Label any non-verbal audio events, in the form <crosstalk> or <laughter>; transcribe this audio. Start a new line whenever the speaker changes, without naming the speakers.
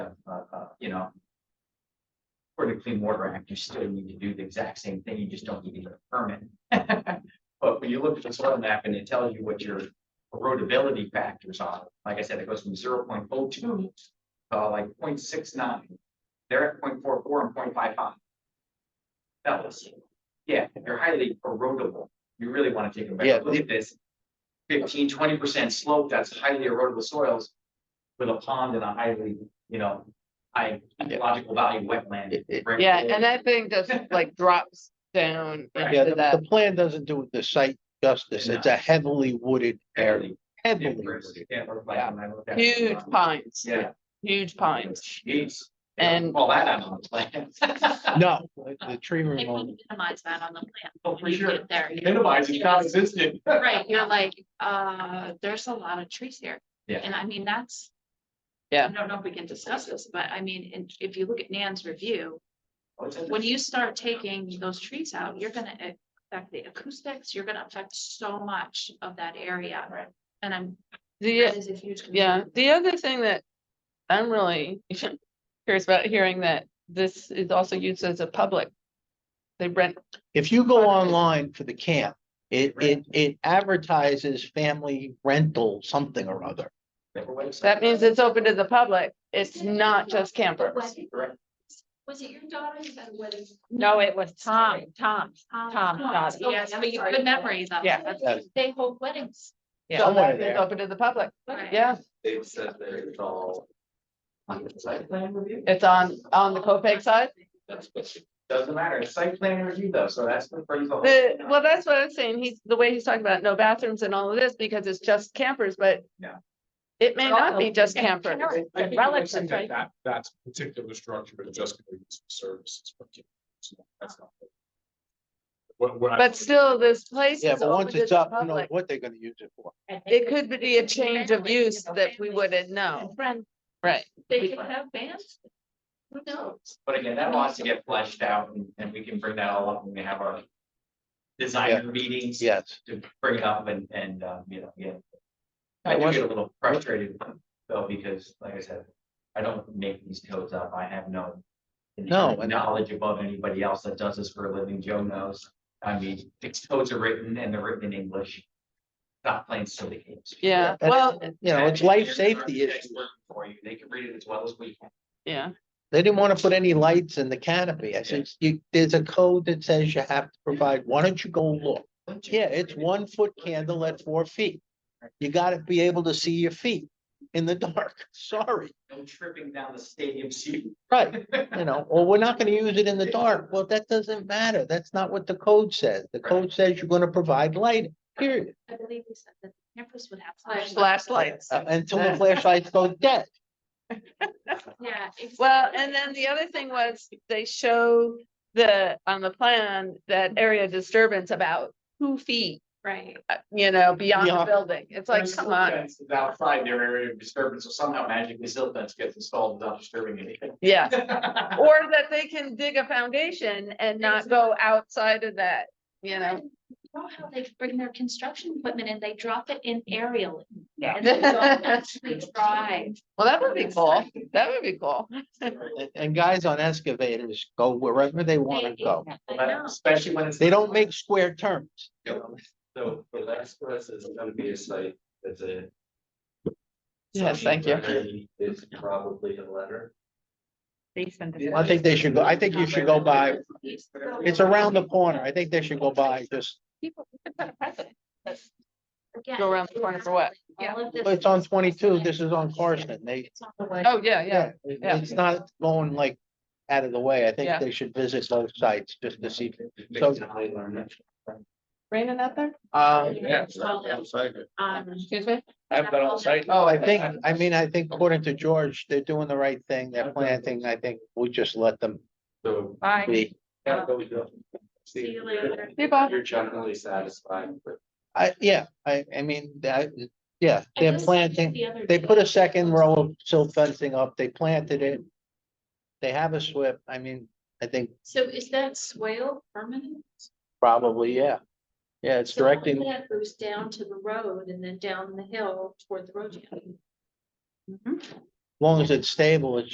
uh, you know. For the Clean Water Act, you still need to do the exact same thing, you just don't need to get a permit. <laughs> But when you look at the soil map and it tells you what your erodibility factors are, like I said, it goes from zero point oh two. Uh, like 0.69. nine, they're at 0.44 and 0.55. Fellas, yeah, you're highly erodible, you really want to take a
Yeah.
better look at this. 15, 20 percent slope, that's highly erodible soils. With a pond and a highly, you know, high ecological value wetland.
It- it-
Right.
Yeah, and that thing just like drops down
Yeah,
into
the,
that.
the plan doesn't do the site justice. It's a heavily wooded area,
Barely.
heavily wooded.
Huge
Huge.
pines,
Um, Yeah.
huge pines.
Jeez.
And-
All that out on the
<laughs>
plan.
No, the the tree
They want
removal,
to minimize that on the plan.
Hmm. Oh,
when
for
you
sure.
get There, you-
Minimize it's not existent.
<laughs> right, you're like, uh, there's a lot of trees here.
Yeah.
And I mean, that's.
Yeah.
I don't know if we can discuss this, but I mean, in- if you look at Nan's review, when
When
you start taking those trees out, you're gonna affect the acoustics, you're gonna affect so much of that area.
Right.
And I'm,
The,
that is a huge. concern.
yeah, the other thing that I'm really <laughs> curious about hearing that this is also used as a public. They rent,
if you go online for the camp, it, it, it advertises family rental something or other.
that means it's open to the public. It's not just campers.
Correct.
Was it your daughter that was?
No, it was Tom, Tom.
um,
Tom, Todd.
Yes, but you have good memory though.
Yeah.
That's-
Yes.
They hold weddings.
So
Somewhere
that is
there.
open to the public.
Right.
Yeah,
They've said that it's all. On the site plan review.
it's on, on the Copeg side.
That's what it- Doesn't matter, it's site plan review though, so that's the phrase. all-
The, well, that's what I'm saying. He's, the way he's talking about no bathrooms and all of this, because it's just campers, but.
Yeah.
It may
But
not
also-
be just campers.
I think it
Relics
looks like
and
That, that- that's a particular structure, but just gonna use for services. for kids. So That's not. What, what. I-
But still, this place
Yeah,
is
but
open
once
to
it's
the
up, you know
public.
what they're gonna use it for.
It could be a change of
Families, you
use
know,
that we
families
wouldn't
and
know.
Friends,
Right.
they could have bands. Who knows?
But again, that wants to get fleshed out and, and we can bring that all up when we have our. Designer meetings.
Yes.
to bring it up and, and, uh, you know, yeah.
I
I do
was-
get a little frustrated though, because like I said, I don't make these codes up. I have no.
No, and-
Knowledge above anybody else that does this for a living. Joe knows. I mean, these codes are written and they're written in English. Not plain silly games.
Yeah,
And-
well,
You know, it's life safety
Architects
issues.
work For you, they can read it as well as we can.
yeah,
They didn't want to put any lights in the canopy. I said, you, there's a code that says you have to provide, why don't you go look?
Don't you
Yeah, it's
agree?
one foot candle at four feet. You gotta be able to see your feet in the <laughs> dark, sorry,
No tripping down the stadium seat.
right, you know, or we're not gonna use it in the dark, well, that doesn't matter, that's not what the code says, the code says you're gonna provide light, period.
I believe you said that campus would have.
flashlights.
Uh, Until the flashlights go dead,
Yeah. it's-
Well, and then the other thing was they show the, on the plan, that area disturbance about two feet,
Right.
uh, you know, beyond the
Yeah.
building. It's like,
There's
come
still
on.
fences Outside their area of disturbance, so somehow magically silt fence gets installed without disturbing
<laughs>
anything.
Yeah. <laughs> Or that they can dig a foundation and not go outside of that, you know?
Know how they bring their construction equipment and they drop it in aerial.
Yeah.
And they don't actually drive.
Well, that would be cool. That would be cool.
and, and guys on excavators go wherever they wanna go,
I know.
Especially when it's.
they don't make square turns.
So for last us, it's gonna be a site that's a.
Yes, thank you.
Is probably a letter.
I think they should go, I think you should go by, it's around the corner, I think they should go by just,
Again,
Go around the corner for what?
all of this
it's on
is-
twenty-two, this is on Carson, they.
It's on the way.
Oh, yeah, yeah.
it-
yeah.
It's not going like out of the way, I
Yeah.
think they should visit both sites just to see,
Makes it high learner.
Raining out there?
um,
Yeah.
Well, yeah. Um,
Excuse me?
I've been on site.
oh, I think, I mean, I think according to George, they're doing the right thing, they're planting, I think we just let them
So.
Bye.
be.
yeah, but we don't-
See you later.
Hey, Bob.
You're generally satisfied with.
I, yeah, I, I mean, that, yeah, they're planting,
The other
they
day-
put a second row of silt fencing up, they planted it. They have a SWIP, I mean, I think
So is that swale permanent?
probably, yeah. Yeah, it's
So all of
directing,
That goes down to the road and then down the hill toward the road. jam.
Mm-hmm.
as long as it's stable, it's